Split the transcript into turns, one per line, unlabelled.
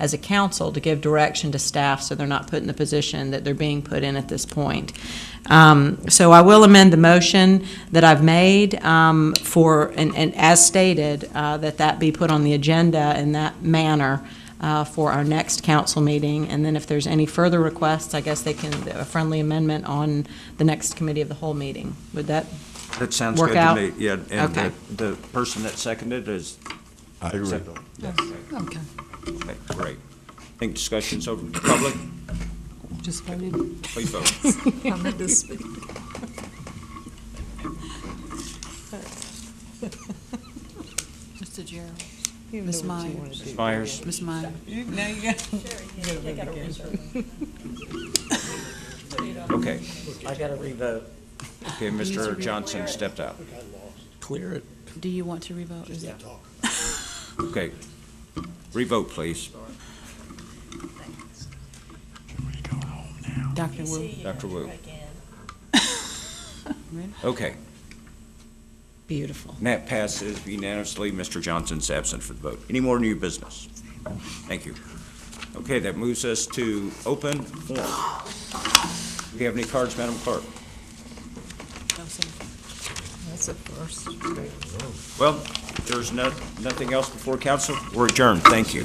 as a council to give direction to staff so they're not put in the position that they're being put in at this point. Um, So I will amend the motion that I've made um, for, and and as stated, uh, that that be put on the agenda in that manner uh, for our next council meeting. And then if there's any further requests, I guess they can, a friendly amendment on the next committee of the whole meeting. Would that,
That sounds
Work
good to
out?
me. Yeah, and
Okay.
the, the person that seconded is
I agree.
acceptable.
Okay,
Okay, great. I think discussion's over. Public,
just voted.
please vote.
I meant to speak.
Mr. Gerald, Ms. Myers,
Ms. Myers,
Ms. Myers.
Now you got.
okay.
I gotta revote.
Okay, Mr. Johnson stepped out.
Clear it.
Do you want to revote? Is that-
Okay. Revote, please.
Dr. Wu?
Dr. Wu. Okay,
beautiful.
and that passes unanimously. Mr. Johnson's absent for the vote. Any more new business? Thank you. Okay, that moves us to open forum. Do you have any cards, Madam Clerk?
No, sir.
That's a first.
Well, if there's no, nothing else before council, we're adjourned. Thank you.